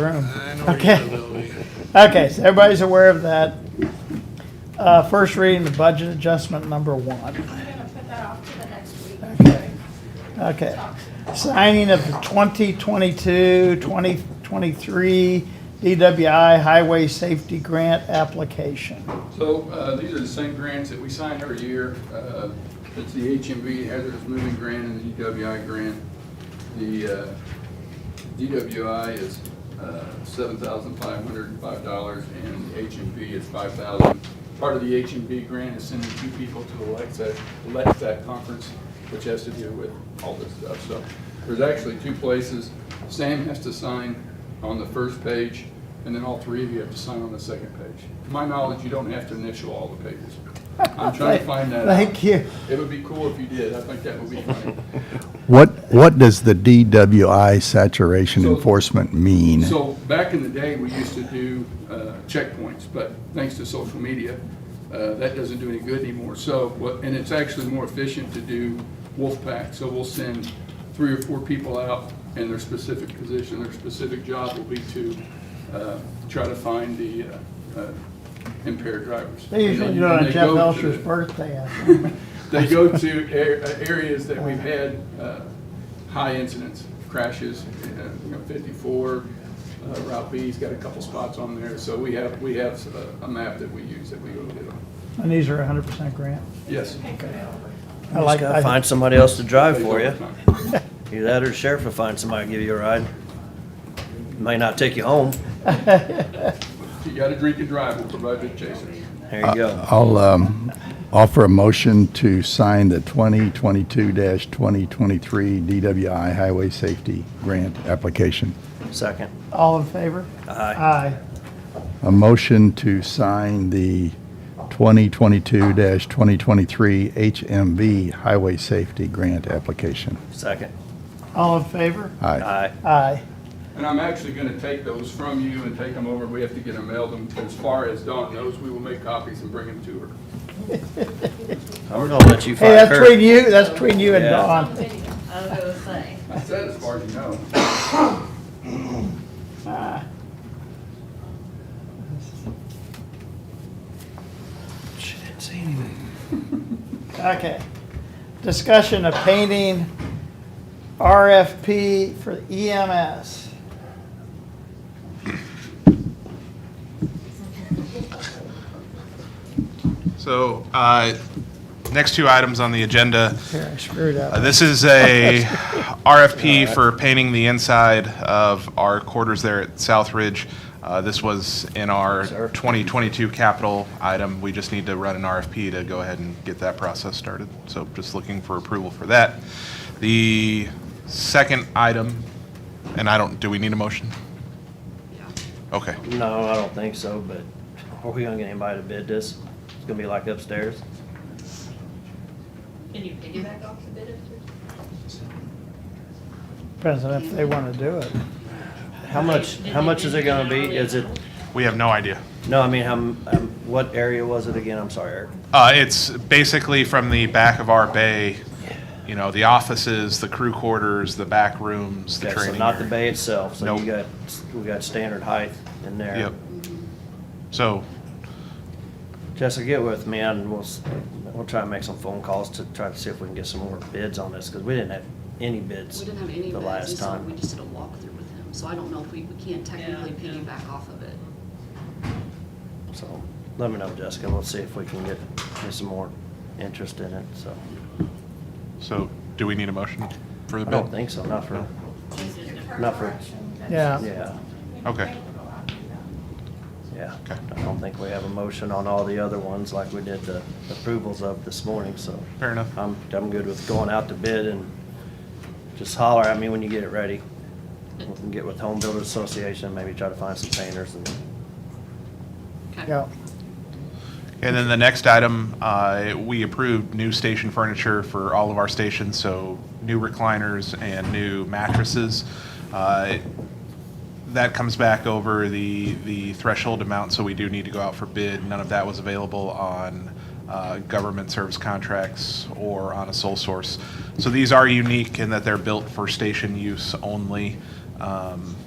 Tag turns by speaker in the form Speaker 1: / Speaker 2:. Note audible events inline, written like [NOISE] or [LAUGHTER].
Speaker 1: room.
Speaker 2: I know
Speaker 1: Okay.
Speaker 2: you will be.
Speaker 1: Okay, so everybody's aware of that. Uh, first reading, the budget adjustment number one.
Speaker 3: I'm gonna put that off to the next week.
Speaker 1: Okay. Okay. Signing of the 2022, 2023 DWI Highway Safety Grant application.
Speaker 4: So uh, these are the same grants that we sign every year. Uh, It's the HMV Hazardous Moving Grant and the DWI grant. The uh, DWI is uh, $7,505 and the HMV is $5,000. Part of the HMV grant is sending two people to Alexa, Alexa conference, which has to do with all this stuff. So there's actually two places. Sam has to sign on the first page and then all three of you have to sign on the second page. To my knowledge, you don't have to initial all the pages.
Speaker 1: [LAUGHS]
Speaker 4: I'm trying to find that out.
Speaker 1: Thank you.
Speaker 4: It would be cool if you did. I think that would be funny.
Speaker 5: What, what does the DWI saturation
Speaker 4: So-
Speaker 5: enforcement mean?
Speaker 4: So back in the day, we used to do uh, checkpoints, but thanks to social media, uh, that doesn't do any good anymore. So, what- and it's actually more efficient to do wolf pack. So we'll send three or four people out and their specific position, their specific job will be to uh, try to find the uh, uh, impaired drivers.
Speaker 1: They usually
Speaker 4: And
Speaker 1: do it
Speaker 4: then- and
Speaker 1: on
Speaker 4: they
Speaker 1: Jeff
Speaker 4: go to
Speaker 1: Elsher's
Speaker 4: the-
Speaker 1: birthday. I
Speaker 4: [LAUGHS]
Speaker 1: think.
Speaker 4: they go to a- uh, areas that we've had uh, high incidents, crashes, uh, you know, 54, uh, Route B's got a couple spots on there, so we have, we have uh, a- a map that we use that we go get on.
Speaker 1: And these are 100% grant.
Speaker 4: Yes.
Speaker 1: I
Speaker 6: Just
Speaker 1: like,
Speaker 6: gotta
Speaker 1: I
Speaker 6: find somebody else to drive
Speaker 4: They
Speaker 6: for you.
Speaker 4: don't have time.
Speaker 6: Either that or sheriff will find somebody to give you a ride. May not take you home.
Speaker 4: You got to drink and drive, we'll provide the chaser.
Speaker 6: There you
Speaker 2: Uh,
Speaker 6: go.
Speaker 5: I'll um, offer a motion to sign the 2022-2023 DWI Highway Safety Grant application.
Speaker 6: Second.
Speaker 1: all in favor?
Speaker 6: Aye.
Speaker 1: Aye.
Speaker 5: A motion to sign the 2022-2023 HMV Highway Safety Grant application.
Speaker 6: Second.
Speaker 1: All in favor?
Speaker 5: Aye.
Speaker 6: Aye.
Speaker 1: Aye.
Speaker 4: And I'm actually going to take those from you and take them over, we have to get them mailed, and as far as Dawn knows, we will make copies and bring them to her.
Speaker 6: I'm gonna let you
Speaker 1: Hey,
Speaker 6: find
Speaker 1: that's between
Speaker 6: her.
Speaker 1: you, that's between you and
Speaker 6: Yeah.
Speaker 1: Dawn.
Speaker 3: I was gonna say.
Speaker 4: I said as far as you know.
Speaker 6: She didn't say anything.
Speaker 1: [LAUGHS] Okay. Discussion of painting RFP for E EMS.
Speaker 2: So, uh, next two items on the agenda.
Speaker 1: Here, I screwed
Speaker 2: Uh,
Speaker 1: up.
Speaker 2: This is a RFP for painting the inside of our quarters there at South Ridge. Uh, This was in our 2022 capital item. We just need to run an RFP to go ahead and get that process started. So just looking for approval for that. The second item, and I don't, do we need a motion? Okay.
Speaker 6: No, I don't think so, but are we gonna get anybody to bid this? It's gonna be like upstairs.
Speaker 3: Can you piggyback off the bid if
Speaker 1: Depends on if they want to do it.
Speaker 6: How much, how much is it gonna be? Is it,
Speaker 2: We have no idea.
Speaker 6: no, I mean, how, m- um, what area was it again? I'm sorry, Eric.
Speaker 2: Uh, it's basically from the back of our bay, you know, the offices, the crew quarters, the back rooms, the
Speaker 6: Okay, so
Speaker 2: training.
Speaker 6: not the
Speaker 2: area.
Speaker 6: bay itself, so you got,
Speaker 2: Nope.
Speaker 6: we got standard height in there.
Speaker 2: Yep. So,
Speaker 6: Jessica, get with me and we'll, s- we'll try and make some phone calls to try to see if we can get some more bids on this, because we didn't have any bids
Speaker 7: We didn't have any
Speaker 6: the
Speaker 7: bids, and
Speaker 6: last
Speaker 7: so we
Speaker 6: time.
Speaker 7: just did a walkthrough with him, so I don't know if we, we can't technically
Speaker 3: Yeah, yeah.
Speaker 7: piggyback off of it.
Speaker 6: So, let me know, Jessica, we'll see if we can get, get some more interest in it, so.
Speaker 2: so do we need a motion for the
Speaker 6: I
Speaker 2: bill?
Speaker 6: don't think so, not for,
Speaker 3: there's?
Speaker 6: Not for-
Speaker 1: Yeah.
Speaker 6: yeah,
Speaker 2: Okay.
Speaker 6: yeah.
Speaker 2: Okay.
Speaker 6: I don't think we have a motion on all the other ones like we did the approvals of this morning, so.
Speaker 2: Fair enough.
Speaker 6: I'm, I'm good with going out to bid and just holler at me when you get it ready. We can get with Home Builders Association, maybe try to find some painters and
Speaker 7: Okay.
Speaker 1: Yeah.
Speaker 2: And then the next item, uh, we approved new station furniture for all of our stations, so new recliners and new mattresses. Uh, That comes back over the, the threshold amount, so we do need to go out for bid. None of that was available on uh, government service contracts or on a sole source. So these are unique in that they're built for station use only. Um,